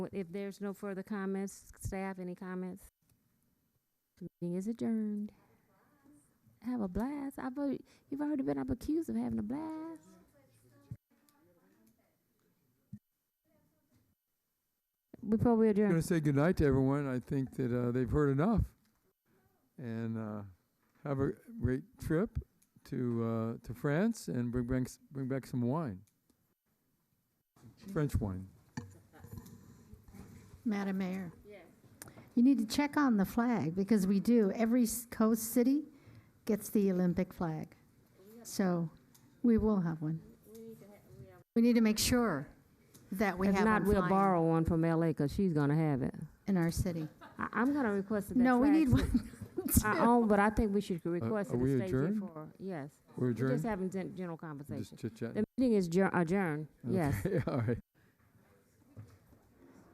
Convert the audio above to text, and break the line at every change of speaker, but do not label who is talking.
If there's no further comments, staff, any comments? The Meeting is adjourned. Have a blast. I've, al- you've already been up accused of having a blast. Before we
I'm
adjourn,
going to say goodnight to everyone. I think that uh, they've heard enough. And uh, have a great trip to uh, to France and bring back, s- bring back some wine. French wine.
Madam Mayor. You need to check on the flag, because we do. Every s- coast city gets the Olympic flag. So we will have one. We need to make sure that we have
if
one
not, we'll
flying
borrow one from LA because she's gonna have it.
In our city.
I, I'm gonna request that. that
No, we need
flag
one.
stay- I own, but I think we should request
Uh, are
it
we
to stay here
adjourned?
for, yes.
We're
We're just
adjourned.
having gen- general conversation.
Just chit chat.
The meeting is jur- adjourned, yes.
All right.